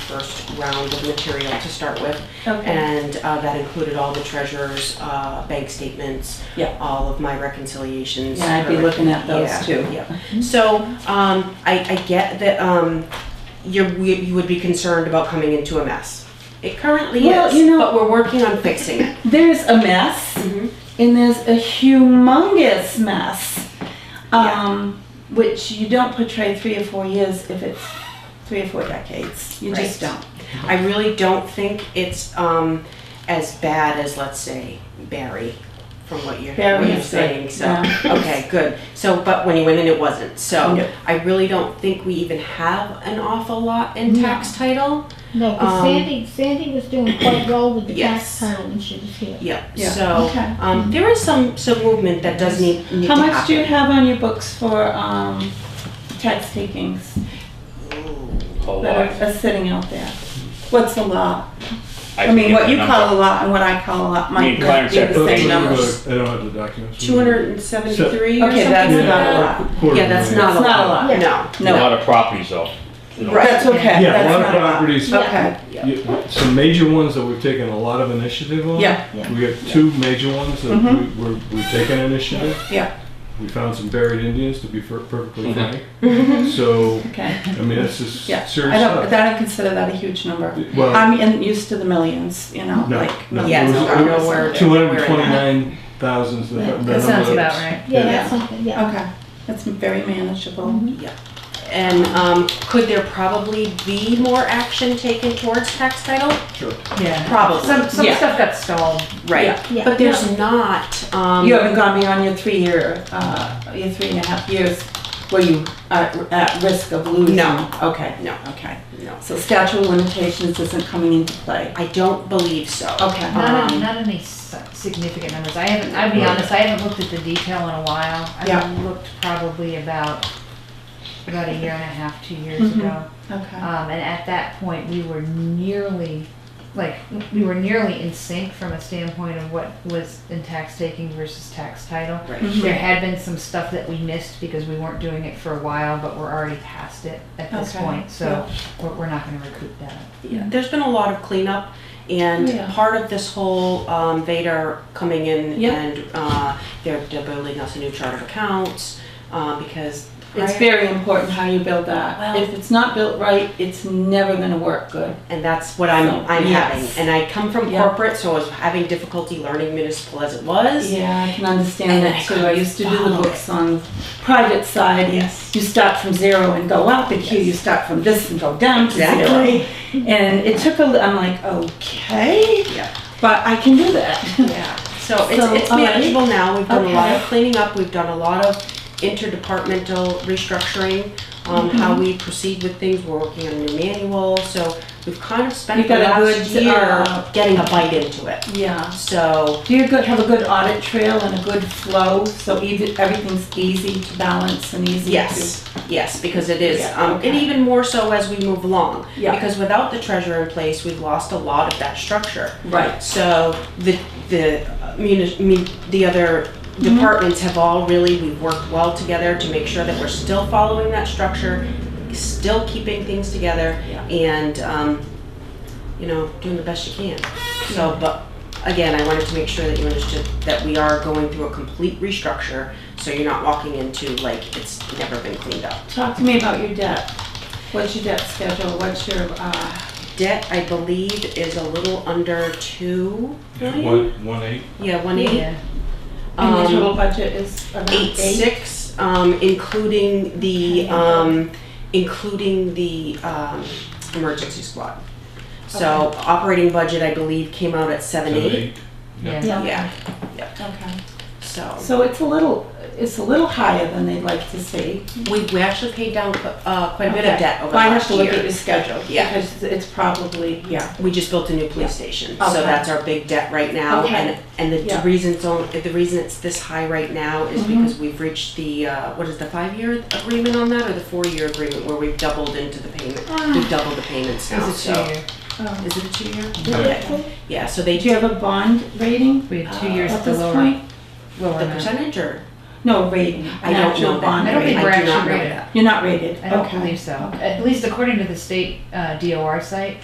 first round of material to start with. Okay. And uh, that included all the treasurer's uh, bank statements, Yeah. all of my reconciliations. Yeah, I'd be looking at those Yeah, too. Yeah. So um, I, I get that um, you you would be concerned about coming into a mess. It currently Well, is, you know- but Mm-hmm. we're working on fixing it. There's a mess, Mhm. and there's a humongous mess, Yeah. um, which you don't portray three or four years if it's three or four decades. You just Right. don't. I really don't think it's um, as bad as, let's say, Barry, from what you're, Barry what you're is good, saying. So, yeah. okay, good. So, but when you went in, it wasn't. So, No. I really don't think we even have an awful lot in tax title. No, Um, because Sandy, Sandy was doing quite well with the Yes. tax title when she was here. Yep. Yeah. So, Okay. um, there is some some movement that does need, need How to much do you happen. have on your books for um, tax takings Ooh. Whole that lot. are, are sitting out there? What's a lot? I can mean, get what the you number. call a lot and what I call a lot Me might and not Clarence be have the the same same numbers. I don't have the documents. 273 or Okay, something that's like not a that? lot. Quarter Yeah, that's million. not, It's a, not a lot. lot. A No, lot of properties though. you know. Right. that's okay. Yeah, a That's lot of not properties, Okay. you- some major ones that we've taken a lot of initiative on. Yeah. We have two major ones that we- Mhm. we're, we're taking initiative. Yeah. We found some buried Indians, to be fer- perfectly Mm-hmm. frank. So, Okay. I mean, that's just Yeah, serious I don't, stuff. I don't consider that a huge number. Well, I'm in, used to the millions, you know, No, like. no. Yeah, millions so of I don't know dollars. where two hundred and twenty-nine thousand is the the Yeah, number. That sounds about that's- right. Yeah, Yeah. that's something, Uh, yeah. Okay, that's very manageable. And um, could there probably be more action taken towards tax title? Sure. Yeah. Probably. Some, some Yeah. stuff got stalled. Right. Yeah. Yeah. But there's not. Um, You haven't gone beyond your three-year, uh, your three and a half years where you are at risk of losing. No. Okay, No. okay. No. So statute of limitations isn't coming into play. I don't believe so. Okay. Not, Um, any- not any s- significant numbers. I haven't, I'll be honest, I haven't looked at the detail in a while. Yeah. I looked probably about, about a year and a half, two years Mhm. ago. Okay. Um, and at that point, we were nearly, like, we were nearly in sync from a standpoint of what was in tax taking versus tax title. Right. Mhm. There had been some stuff that we missed because we weren't doing it for a while, but we're already past it at this Okay. point, so we're, we're not gonna recoup that. Yeah. There's been a lot of cleanup, and Yeah. part of this whole um, Vader coming in Yeah. and uh, they're, they're building us a new chart of accounts uh, because It's prior- very important how you build that. Well- If it's not built right, it's never gonna work good. and that's what I'm So, I'm yes. having. And I come from Yeah. corporate, so I was having difficulty learning municipal as it was. Yeah, I can understand And I that too. I used to do the follow books on the private side. and Yes. You start from zero and go up, and here you start from this and go down to zero. Exactly. And it took a, li- I'm like, okay, Yeah. but I can do that. Yeah, so it's, So, it's all right. manageable now, we've done a lot of Okay. cleaning up, we've done a lot of interdepartmental restructuring on Mm-hmm. how we proceed with things, we're working on a new manual, so we've kind of spent You've the got a last good, year uh, getting a bite into it, Yeah. so, Do you good, have a good audit trail and a good flow, so even, everything's easy to balance and easy to? yes, yes, because it is, Yeah, um, and okay. even more so as we move along. Yeah. Because without the treasurer in place, we've lost a lot of that structure. Right. So the, the, uh, muni- mun- the other departments have all really, we've worked well together to make sure that we're still following that structure, still keeping things together, and, um, you know, doing the best you can. So, but, again, I wanted to make sure that you understood that we are going through a complete restructure, so you're not walking into like it's never been cleaned up. Talk to me about your debt. What's your debt schedule? What's your, uh, Debt, I believe, is a little under two million? One, one eight. Yeah, one eighty. Yeah. and your Um, total budget is around eight six, um, including the, um, including the, um, emergency squad. So operating budget, I believe, came out at seven eight, Yeah. Yeah. yeah, Okay. so. So it's a little, it's a little higher than they'd like to see. We, we actually paid down, uh, quite a bit of Okay. debt over Well, I have last to look at year. your schedule. Yeah. Because it's probably, yeah. We just built a new police station, so Okay. that's our big debt right now, Okay. and, and the Yeah. reason it's only, the reason it's this high right now is because we've reached the, uh, what is the five-year agreement on that, or the four-year agreement where we've doubled into the payment, we've doubled the payments now, It's so. a two-year. Oh. Is it a two-year? Yeah. Yeah, so they Do you do have a bond rating? We have two uh, years at to this lower. point? lower the amount. percentage or? No, rating. I don't know that. I don't think I we're do not know actually rated. that. You're not rated. I don't Okay. believe so. Okay. At least according to the state uh, DOR site,